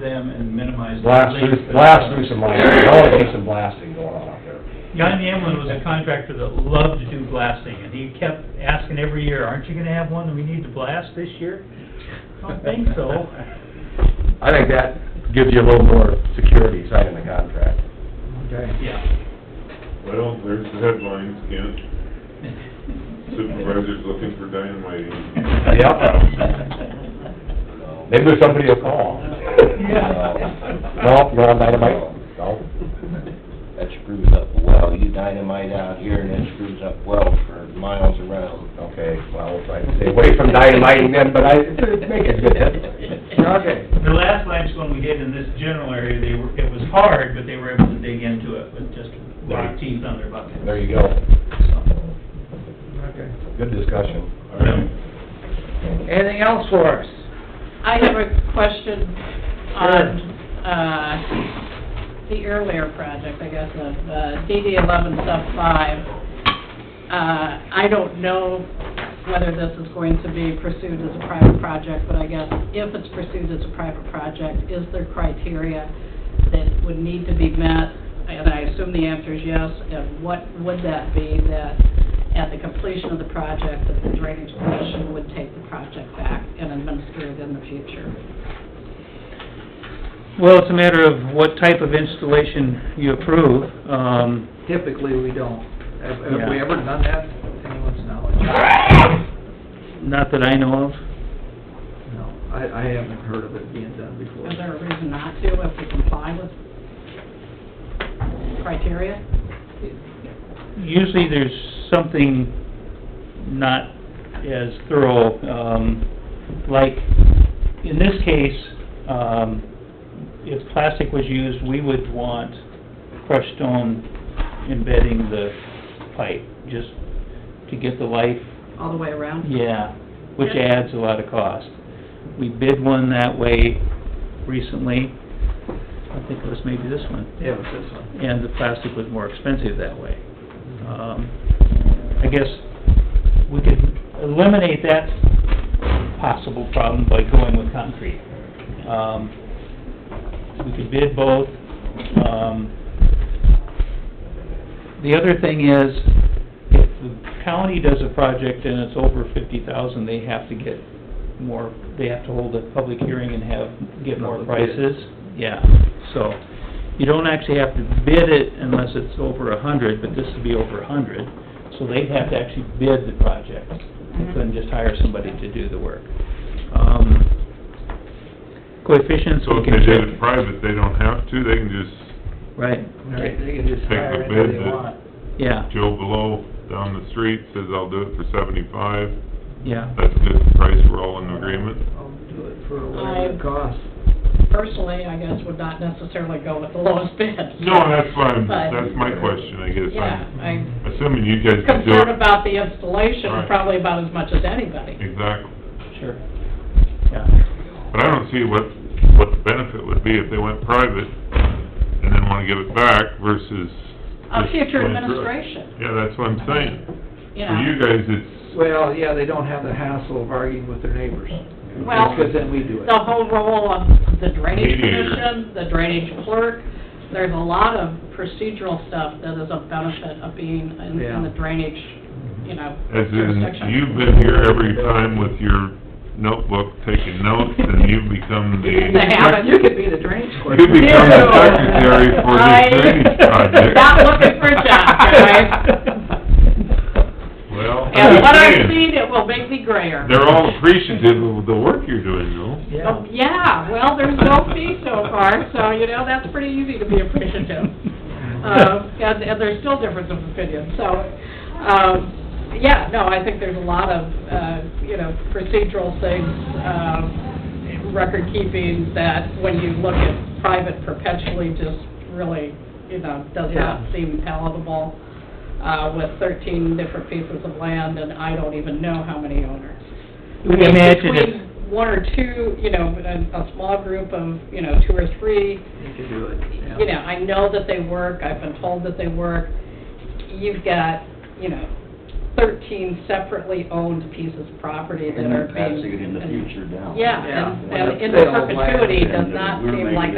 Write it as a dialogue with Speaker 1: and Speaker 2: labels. Speaker 1: them and minimize. the
Speaker 2: Blast
Speaker 1: length
Speaker 2: through,
Speaker 1: of-
Speaker 2: blast through some blasting, there's always be some blasting going on out there.
Speaker 1: John Yamlin was a contractor that loved to do blasting, and he kept asking every year, aren't you gonna have one that we need to blast this year? I don't think so.
Speaker 2: I think that gives you a little more security signing the contract.
Speaker 1: Yeah.
Speaker 3: Well, there's the headlines again. Supervisor's looking for dynamite.
Speaker 1: Yep.
Speaker 2: Maybe there's somebody will call.
Speaker 1: Yeah.
Speaker 2: No, you're on dynamite? No.
Speaker 4: That screws up the well, you dynamite out here and it screws up well for miles around.
Speaker 2: Okay, well, I'd stay away from dynamiting then, but I, make it good. Okay.
Speaker 1: The last limestone we did in this general area, they were, it was hard, but they were able to dig into it with just rock teeth on their bucket.
Speaker 2: There you go.
Speaker 1: So,
Speaker 5: Okay.
Speaker 2: Good discussion.
Speaker 3: All right.
Speaker 5: Anything else for us?
Speaker 6: I have a question on, uh, the earlier project, I guess, of uh, DD eleven sub five. Uh, I don't know whether this is going to be pursued as a private project, but I guess if it's pursued as a private project, is there criteria that would need to be met? And I assume the answer is yes, and what would that be that at the completion of the project, that the drainage commission would take the project back and administer it in the future?
Speaker 7: Well, it's a matter of what type of installation you approve. Um,
Speaker 5: Typically, we don't. Have, have
Speaker 7: Yeah.
Speaker 5: we ever done that, to anyone's knowledge?
Speaker 7: not that I know of.
Speaker 5: No, I, I haven't heard of it being done before.
Speaker 6: Is there a reason not to if we comply with criteria?
Speaker 7: Usually there's something not as thorough, um, like, in this case, um, if plastic was used, we would want crushed stone embedding the pipe, just to get the life
Speaker 6: All the way around?
Speaker 7: Yeah, which
Speaker 6: Yeah.
Speaker 7: adds a lot of cost. We bid one that way recently, I think it was maybe this one,
Speaker 5: Yeah, it was this one.
Speaker 7: and the plastic was more expensive that way. Um, I guess we could eliminate that possible problem by going with concrete. Um, We could bid both. Um, The other thing is, if the county does a project and it's over fifty thousand, they have to get more, they have to hold a public hearing and have, get more
Speaker 5: Public bid.
Speaker 7: prices. Yeah, so, you don't actually have to bid it unless it's over a hundred, but this would be over a hundred, so they'd have to actually bid the project. They couldn't just hire somebody to do the work. Um, Coefficients,
Speaker 3: So
Speaker 7: we
Speaker 3: if
Speaker 7: can
Speaker 3: they
Speaker 7: check.
Speaker 3: did it private, they don't have to, they can just
Speaker 7: Right,
Speaker 5: They they can just
Speaker 3: Take the
Speaker 5: hire anybody
Speaker 3: bid
Speaker 5: they
Speaker 3: that-
Speaker 5: want.
Speaker 7: yeah,
Speaker 3: Joe below down the street says, I'll do it for seventy-five.
Speaker 7: yeah.
Speaker 3: That's a good price, we're all in agreement.
Speaker 5: I'll do it for whatever
Speaker 6: I-
Speaker 5: it costs.
Speaker 6: Personally, I guess would not necessarily go with the lowest bid.
Speaker 3: No, that's fine,
Speaker 6: But-
Speaker 3: that's my question, I guess.
Speaker 6: Yeah,
Speaker 3: I'm
Speaker 6: I'm
Speaker 3: Assuming you guys can do
Speaker 6: concerned
Speaker 3: it.
Speaker 6: about the installation
Speaker 3: Right.
Speaker 6: probably about as much as anybody.
Speaker 3: Exactly.
Speaker 7: Sure. Yeah,
Speaker 3: But I don't see what, what the benefit would be if they went private and then wanna give it back versus.
Speaker 6: A
Speaker 3: just
Speaker 6: future
Speaker 3: going through it.
Speaker 6: administration,
Speaker 3: Yeah, that's what I'm saying.
Speaker 6: you
Speaker 3: For you
Speaker 6: know.
Speaker 3: guys, it's,
Speaker 5: Well, yeah, they don't have the hassle of arguing with their neighbors.
Speaker 6: Well-
Speaker 5: Because then we do it.
Speaker 6: The whole role of the drainage
Speaker 3: Mediator.
Speaker 6: commission, the drainage clerk, there's a lot of procedural stuff that is a benefit of being in, in the
Speaker 5: Yeah.
Speaker 6: drainage, you know,
Speaker 3: as in,
Speaker 6: jurisdiction.
Speaker 3: you've been here every time with your notebook taking notes and you've become
Speaker 6: The
Speaker 3: the,
Speaker 6: habit.
Speaker 5: You could be the drainage clerk.
Speaker 3: you become the secretary for this
Speaker 6: I-
Speaker 3: drainage project.
Speaker 6: Not looking for a job, guys.
Speaker 3: Well, I'm
Speaker 6: And
Speaker 3: just
Speaker 6: what I've
Speaker 3: saying,
Speaker 6: seen, it will make me grayer.
Speaker 3: they're all appreciative of the work you're doing, though.
Speaker 6: Oh, Yeah, well, there's no fee so far, so, you know, that's pretty easy to be appreciative. Um, and, and there's still difference of opinion, so, um, yeah, no, I think there's a lot of, uh, you know, procedural things, um, record keeping that when you look at private perpetually just really, you know, does not
Speaker 5: Yeah.
Speaker 6: seem palatable, uh, with thirteen different pieces of land and I don't even know how many owners. I mean,
Speaker 7: Imagine if,
Speaker 6: Between one or two, you know, a, a small group of, you know, two or three,
Speaker 5: You could do it, yeah.
Speaker 6: you know, I know that they work, I've been told that they work. You've got, you know, thirteen separately owned pieces of property that
Speaker 4: And
Speaker 6: are
Speaker 4: they're
Speaker 6: being...
Speaker 4: passing it in the future down.
Speaker 6: Yeah, and
Speaker 5: Yeah.
Speaker 6: and in
Speaker 5: Sale of land.
Speaker 6: perpetuity does not
Speaker 4: We're
Speaker 6: seem
Speaker 4: making
Speaker 6: like
Speaker 4: it